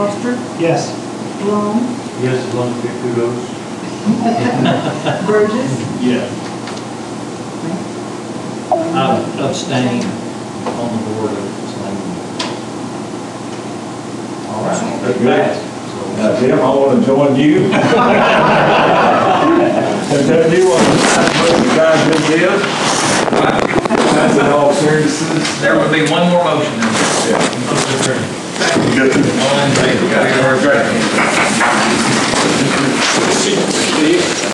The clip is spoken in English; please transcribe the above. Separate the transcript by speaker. Speaker 1: Parker,
Speaker 2: Yes.
Speaker 1: Long,
Speaker 3: Yes, as long as we get kudos.
Speaker 1: Burgess.
Speaker 3: Yes.
Speaker 4: I abstain on the board of selectmen.
Speaker 3: All right.
Speaker 5: That's good.
Speaker 3: That's
Speaker 5: Now, Tim, I want to join you. And tell you what, what you guys just did. That's in all seriousness.
Speaker 4: There would be one more motion.
Speaker 5: Good.
Speaker 4: All in favor?
Speaker 5: We are great.